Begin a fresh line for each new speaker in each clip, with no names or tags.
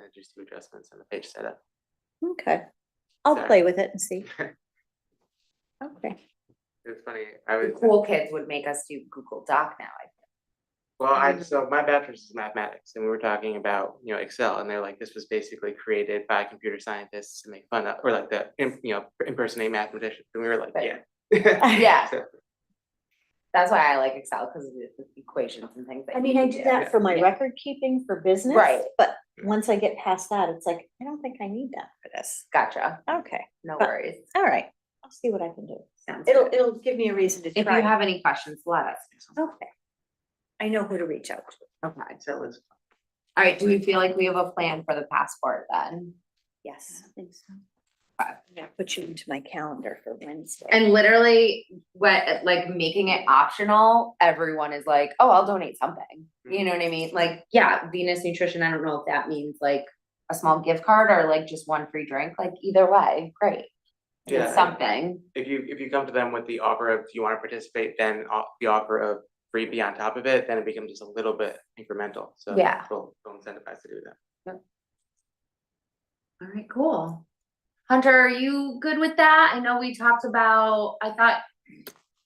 I just do adjustments on the page setup.
Okay, I'll
Sorry.
play with it and see. Okay,
It's funny, I
The
was,
cool kids would make us do Google Doc now. I
well, I, so my bachelor's is mathematics and we were talking about, you know, Excel and they're like, this was basically created by computer scientists to make fun of, or like the, im- you know, impersonate mathematicians. And we were like,
Right.
yeah.
Yeah.
So-
That's why I like Excel because of the equations and things. that
I
you
mean,
can
I do that for my record keeping for business.
Right.
But once I get past that, it's like, I don't think I need that for this.
Gotcha.
Okay,
No
But-
worries.
all right, I'll see what I can do.
Sounds
It'll,
good.
it'll give me a reason to
If you
try.
have any questions, let us. know.
Okay. I know who to reach out to.
Okay.
Excel is
All right. Do we feel like we have a plan for the passport then?
Yes. Uh, I think so.
Okay.
Yeah, put you into my calendar for Wednesday.
And literally, what like making it optional, everyone is like, oh, I'll donate something. You know what I mean? Like, yeah, Venus Nutrition. I don't know if that means like a small gift card or like just one free drink. Like either way, great.
Yeah.
It's something.
if you, if you come to them with the offer of, do you want to participate, then o- the offer of freebie on top of it, then it becomes just a little bit incremental. So
Yeah.
We'll, we'll incentivize to do that.
All right, cool. Hunter, are you good with that? I know we talked about, I thought,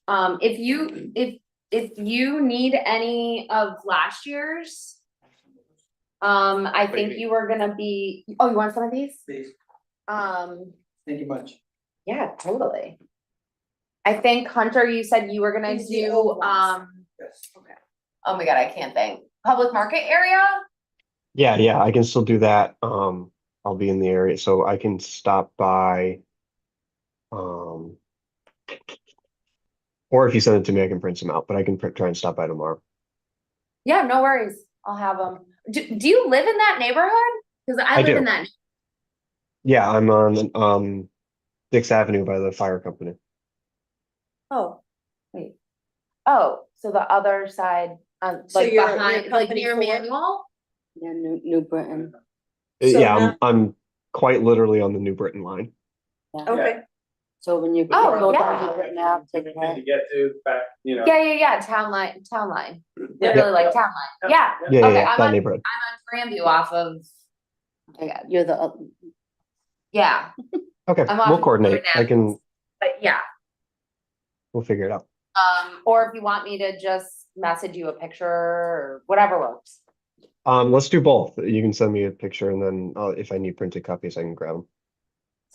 um, if you, if, if you need any of last year's, um, I
do you
think
mean?
you were gonna be, oh, you want some of these?
Please,
Um,
thank you much.
yeah, totally. I think Hunter, you said you were gonna
These are the
do,
old ones.
um,
Yes. Okay.
oh my God, I can't think, public market area?
Yeah, yeah, I can still do that. Um, I'll be in the area, so I can stop by. Um. Or if you send it to me, I can print some out, but I can print, try and stop by tomorrow.
Yeah, no worries. I'll have them. Do, do you live in that neighborhood? Cause
I
I live
do.
in that.
Yeah, I'm on, um, Dix Avenue by the fire company.
Oh,
Oh, so the other side, um,
So
like
you're- you're
behind, like
company
near
four?
Manual?
Yeah, New, New Britain.
Uh,
So
Yeah,
now-
I'm, I'm quite literally on the New Britain line.
okay.
So when you.
Oh,
go
yeah.
down New Britain Ave, take a right.
get to back, you know.
Yeah, yeah, yeah, town line, town line, literally like town line, yeah,
Yeah, yeah,
Okay,
yeah,
I'm
that
on-
neighborhood.
I'm on Grandview off of,
Yeah, You're the, up-
yeah,
Okay,
I'm
we'll
on
coordinate. I
Grandview.
can,
but yeah.
we'll figure it out.
Um, or if you want me to just message you a picture or whatever works.
Um, let's do both. You can send me a picture and then, uh, if I need printed copies, I can grab them.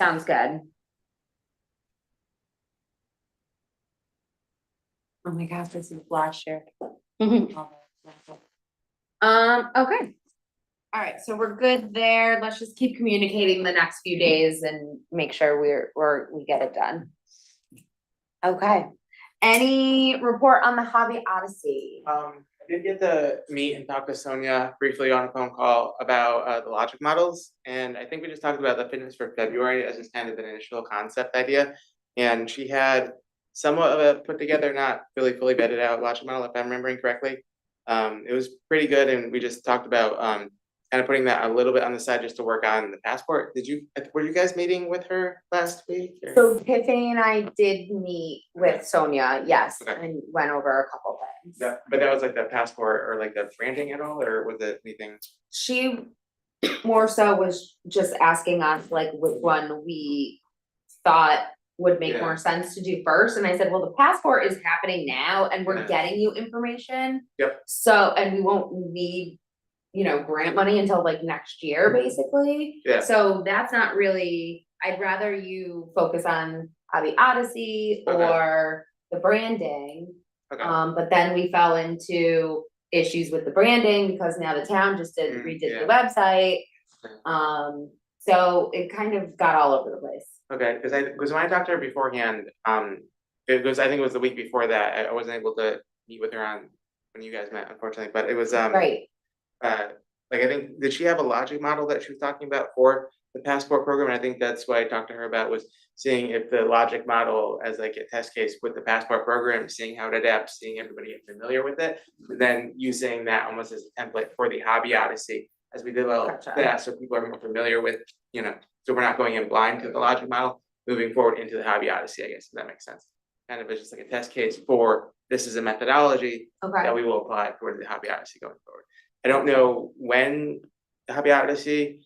Sounds good. Oh my gosh, this is last year. Um, Mm-hmm. okay. All right, so we're good there. Let's just keep communicating the next few days and make sure we're, we're, we get it done. Okay, any report on the Hobby Odyssey?
Um, I did get to meet and talk to Sonia briefly on a phone call about uh the logic models. And I think we just talked about the fitness for February as just kind of an initial concept idea. And she had somewhat of a put together, not really fully vetted out logic model, if I'm remembering correctly. Um, it was pretty good and we just talked about um kind of putting that a little bit on the side just to work on the passport. Did you, uh, were you guys meeting with her last week? or-
So Tiffany and I did meet with Sonia, yes,
Okay.
and went over a couple things.
Yeah, but that was like the passport or like the branding at all, or was it anything?
she more so was just asking us like which one we thought would make
Yeah.
more sense to do first, and I said, well, the passport is happening now, and we're
Yeah.
getting you information.
Yep.
So, and we won't need, you know, grant money until like next year, basically.
Yeah.
So that's not really, I'd rather you focus on Hobby Odyssey
Okay.
or the branding.
Okay.
Um, but then we fell into issues with the branding because now the town just did
Mm,
redid the website. Um, so it kind of got all over the place.
Okay, because I, because when I talked to her beforehand, um, it was, I think it was the week before that, I- I wasn't able to meet with her on, when you guys met unfortunately, but it was, um.
Right,
Uh, like I think, did she have a logic model that she was talking about for the passport program? And I think that's what I talked to her about was seeing if the logic model as like a test case with the passport program, seeing how it adapts, seeing everybody get familiar with it. and Then using that almost as a template for the hobby odyssey as we develop
Gotcha.
that, so people are more familiar with, you know, so we're not going in blind to the logic model, moving forward into the hobby odyssey, I guess, if that makes sense. Kind of it's just like a test case for, this is a methodology,
okay,
that we will apply towards the Hobby Odyssey going forward. I don't know when the Hobby Odyssey